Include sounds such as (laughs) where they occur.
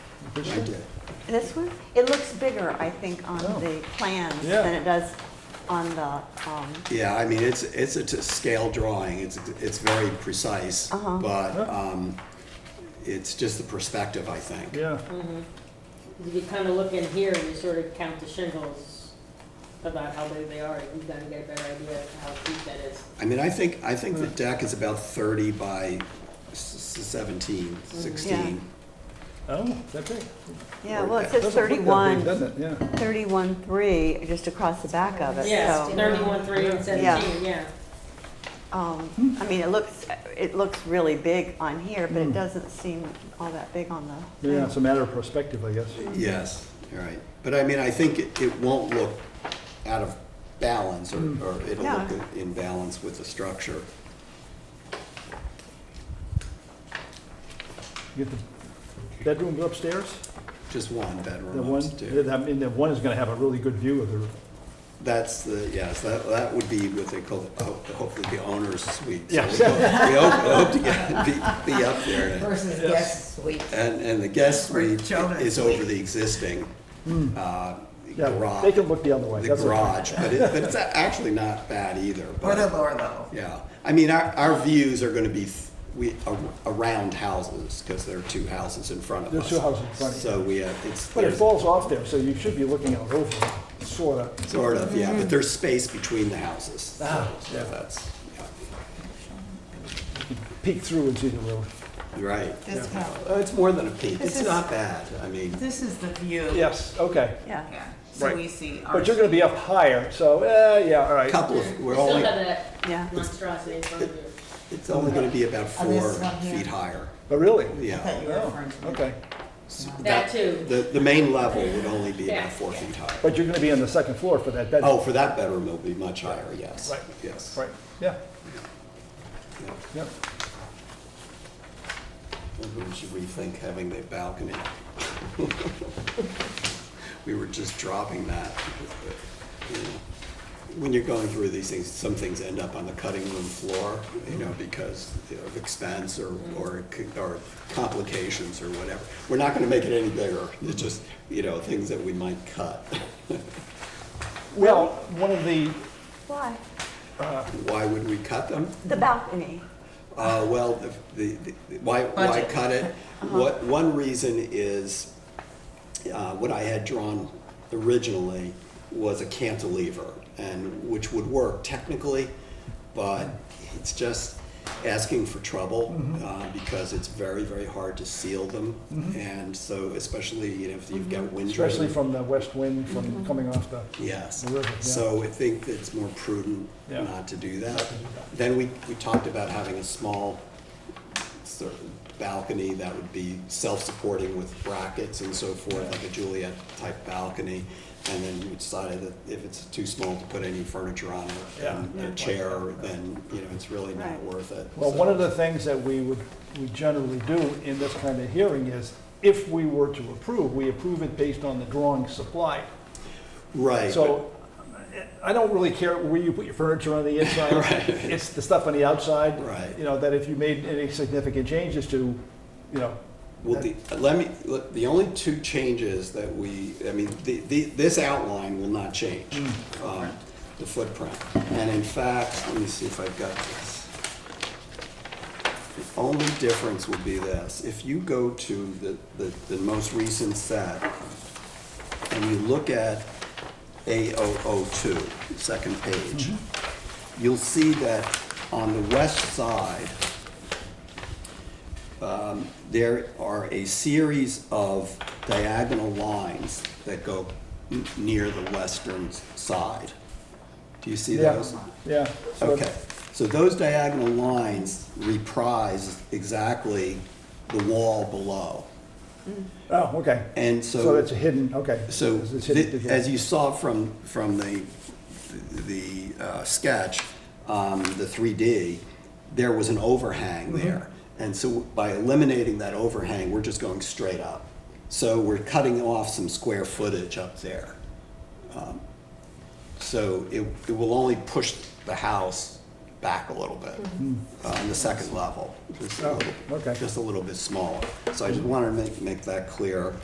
I did. This one? It looks bigger, I think, on the plans Oh. Yeah. than it does on the, um, Yeah, I mean, it's, it's a t- scale drawing, it's, it's very precise, Uh-huh. but, um, it's just the perspective, I think. Yeah, You kind of look in here and you sort of count the shingles about how big they are, and you kind of get a better idea of how deep that is. I mean, I think, I think the deck is about thirty by s- seventeen, sixteen. oh, that big. yeah, well, it Doesn't says Doesn't look that big, 31, Doesn't it, yeah. 31.3, just across the back of it, Yeah, so. thirty-one, three, and seventeen, yeah. um, I mean, it looks, it looks really big on here, but it doesn't seem all that big on the. Hmm. Yeah, it's a matter of perspective, I guess. Yes, all right. But I mean, I think it, it won't look out of balance or, Hmm. or it'll No. look in balance with the structure. You get the bedrooms upstairs, Just one the bedroom one, upstairs. I mean, the one is gonna have a really good view of the, That's the, yes, that, that would be what they call, the- ho- hopefully the owner's suite. So Yes. We hope- we hope, we hope to get, be, be up there. Versus guest suite. And, and the guest Or suite children's is over the existing, uh, Hmm. yeah, they garage, can look the other way. the that's okay. garage, but it, but it's actually not bad either. Or but- the lower level. Yeah, I mean, our, our views are gonna be, th- we, ar- around houses, because there are two houses in front of There are us. two houses in front of you. So we have, it's, But it there's, falls off there, so you should be looking out over, it, sorta. sort of, yeah, Mm-hmm. but there's space between the houses. so- Ah, so yeah. That's, Peek through and see the road. yeah, right. This house. Uh, It's more than a peak, This it's is- not bad, I mean, This is the view. Yes, okay. Yeah. Yeah, so Right. we see our. But you're gonna be up higher, so, eh, yeah, all a right. couple of, You we're still only, have that Yeah. monstrosity in front of you. it's only gonna be about Oh, this four one here. feet higher, But really? I thought yeah. you were Oh, referring to. okay. S- That too. The, the main level would only be Yeah. about four feet higher. But you're gonna be on the second floor for that bedroom. Oh, for that bedroom, it'll be much higher, yes, Right. yes. Right, yeah, yeah. yeah. Maybe we should rethink having the balcony. (laughs) We were just dropping that. because, uh, you know, When you're going through these things, some things end up on the cutting room floor, you know, because you know, of expense or, or, c- or complications or whatever. We're not gonna make it any bigger, it's just, you know, things that we might cut. Well, one of the, Why? Why would we cut them? The balcony. Uh, well, the- the, the, why, why Budget. cut it? What, one reason is, uh, what I had drawn originally was a cantilever, and, which would work technically, but it's just asking for trouble, uh, because it's very, very hard to seal them. And so especially, you know, if you've got wind driven. especially from the west wind from coming off the, Yes, The river, yeah. so I think that it's more prudent Yeah. not to do that. Then we, we talked about having a small sort of balcony that would be self-supporting with brackets and so forth, like a Juliet type balcony. And then we decided that if it's too small to put any furniture on it, Yeah. and a chair, then, you know, it's really not Right. worth it. well, So- one of the things that we would, we generally do in this kind of hearing is, if we were to approve, we approve it based on the drawing supplied. Right, but- So I don't really care where you put your furniture on the (laughs) inside. It's the stuff on the outside. Right. You know, that if you made any significant changes to, you know, Well, the, let me, let- the only two changes that we, I mean, the, the, this outline will not change, um, the footprint. And in fact, let me see if I've got this. The only difference would be this, if you go to the, the, the most recent set, and you look at A002, second page, you'll see that on the west side, um, there are a series of diagonal lines that go n- near the western s- side. Do you see yeah, those? yeah. So Okay, so those diagonal lines reprise exactly the wall below. Oh, okay. And so. So it's a hidden, okay. So, It's- it's hidden thi- to- as you saw from, from the, the uh, sketch, um, the 3D, there was an Mm-hmm. overhang there. And so by eliminating that overhang, we're just going straight up. So we're cutting off some square footage up there. Um, So it, it will only push the house back a little bit, uh, on the second level. just a Oh, little- Mm-hmm. okay. Just a little bit smaller. So I just wanted to make, make that clear.